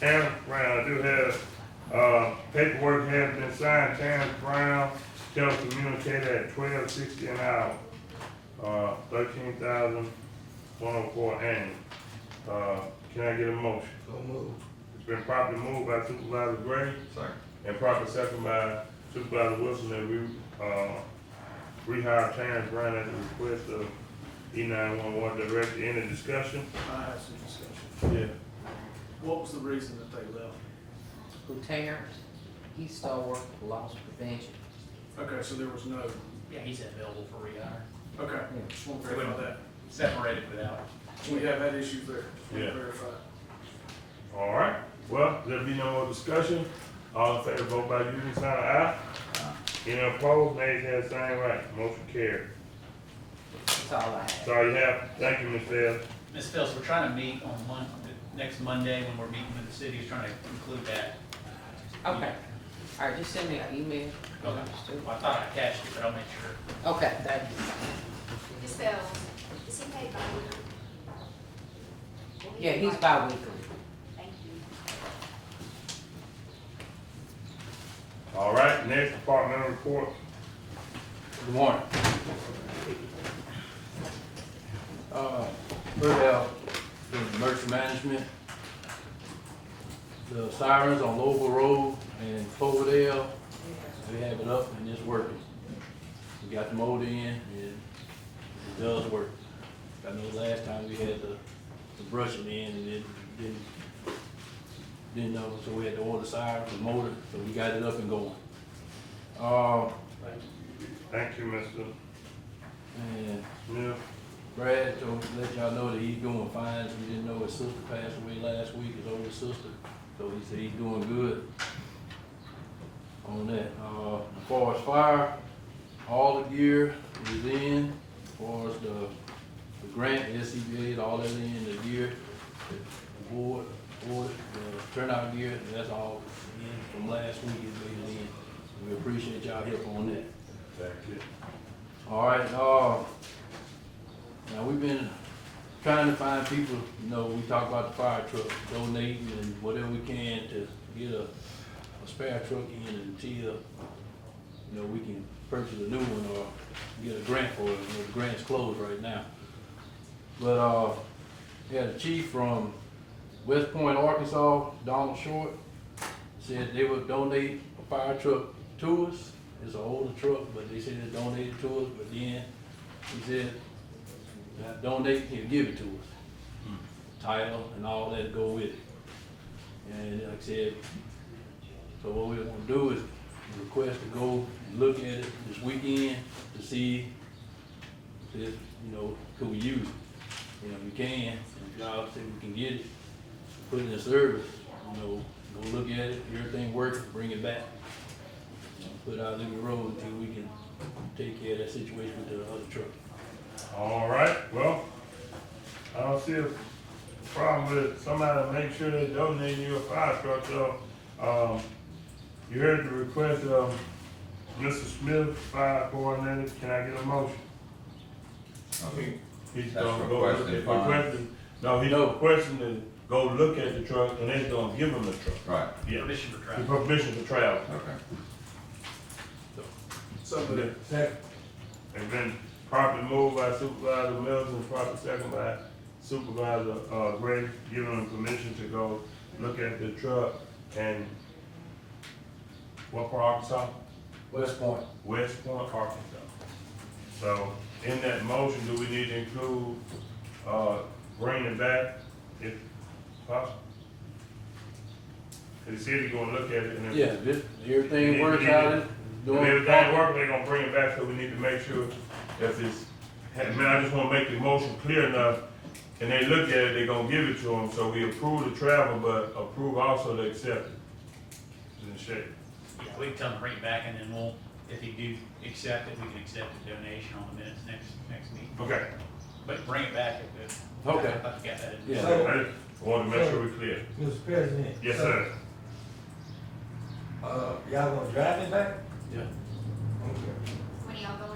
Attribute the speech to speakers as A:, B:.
A: Tam Brown, I do have, uh, paperwork has been signed, Tam Brown, telecommunicator at twelve sixty an hour, uh, thirteen thousand one oh four annual. Uh, can I get a motion?
B: So move.
A: It's been properly moved by Supervisor Gray
B: Second.
A: and properly second by Supervisor Wilson that we, uh, rehire Tam Brown at the request of E nine one one director. Any discussion?
C: I had some discussion.
A: Yeah.
C: What was the reason that they left?
D: Lieutenant, he's still working for loss prevention.
C: Okay, so there was no,
E: Yeah, he's available for rehire,
C: okay,
D: Yeah.
C: just want to verify that.
E: separated without.
C: We have had issues there, just want
A: Yeah.
C: to verify.
A: All right, well, there be no more discussion. All in favor, vote by using sign of aye. Any opposed, nays have the same right. Motion carried.
D: That's all I have.
A: That's all you have. Thank you, Ms. Bell.
E: Ms. Phelps, we're trying to meet on Mon, next Monday when we're meeting with the city, is trying to conclude that.
D: Okay, all right, just send me an email.
E: Okay. I thought I catched it, but I'll make sure.
D: Okay, thank you.
F: Ms. Bell, uh, is he paid by weekly?
D: Yeah, he's bi-weekly.
F: Thank you.
A: All right, next departmental report.
G: Good morning. Uh, First out, the emergency management, the sirens on Louisville Road and Cloverdale, we have it up and it's working. We got the motor in and it does work. I know last time we had the, the brushing in and it didn't, didn't know, so we had to order sirens, the motor, so we got it up and going. Uh,
A: Thank you, Mr.
G: and
A: Smith.
G: Brad, to let y'all know that he's doing fine, we didn't know his sister passed away last week, his older sister, so he said he's doing good on that. Uh, as far as fire, all the gear is in, as far as the, the grant, SCBA, all that in, the gear, the board, board, the turnout gear, that's all in from last week, it's been in. We appreciate y'all help on that.
A: Thank you.
G: All right, uh, now we've been trying to find people, you know, we talk about the fire truck, donating and whatever we can to get a, a spare truck in until, you know, we can purchase a new one or get a grant for it, you know, the grant's closed right now. But, uh, yeah, the chief from West Point, Arkansas, Donald Short, said they would donate a fire truck to us. It's an older truck, but they said they donated to us, but then he said, "Not donate, he'll give it to us. Title and all that go with it. And like I said, so what we're gonna do is request to go and look at it this weekend to see if, you know, could we use it? You know, we can, if y'all say we can get it, put it in service, you know, go look at it, everything working, bring it back. You know, Put out in the road until we can take care of that situation with the other truck.
A: All right, well, I don't see a problem with somebody make sure they donate you a fire truck, so, um, you heard the request of Mr. Smith, fire coordinator, can I get a motion?
B: Okay.
A: He's
B: That's
A: gonna go,
B: requested
A: look-
B: funds.
A: requesting, no, he's
G: No.
A: requesting to go look at the truck and they're gonna give him the truck.
B: Right,
A: Yeah,
E: Permission for
A: the
E: travel.
A: permission to travel.
B: okay.
C: So the,
A: Second. And then properly moved by Supervisor Milton, properly second by Supervisor, uh, Gray, giving him permission to go look at the truck and what for Arkansas?
G: West Point.
A: West Point, Arkansas. So in that motion, do we need to include, uh, bring it back if possible? Cause the city gonna look at it and if.
G: Yeah, this, everything works out, it's
A: If
G: doing.
A: everything work, they gonna bring it back, so we need to make sure if it's, hey, man, I just wanna make the motion clear enough. And they look at it, they gonna give it to them, so we approve the travel, but approve also to accept it. And shit,
E: Yeah, we can tell him to bring it back and then we'll, if he do accept it, we can accept the donation on the minutes next, next week.
A: okay,
E: But bring it back if it.
G: Okay.
E: I got that in.
G: Yeah.
A: I just wanted to make sure we clear.
H: Mr. President.
A: Yes, sir.
H: Uh, y'all gonna drive it back?
G: Yeah.
H: Okay.
F: When y'all go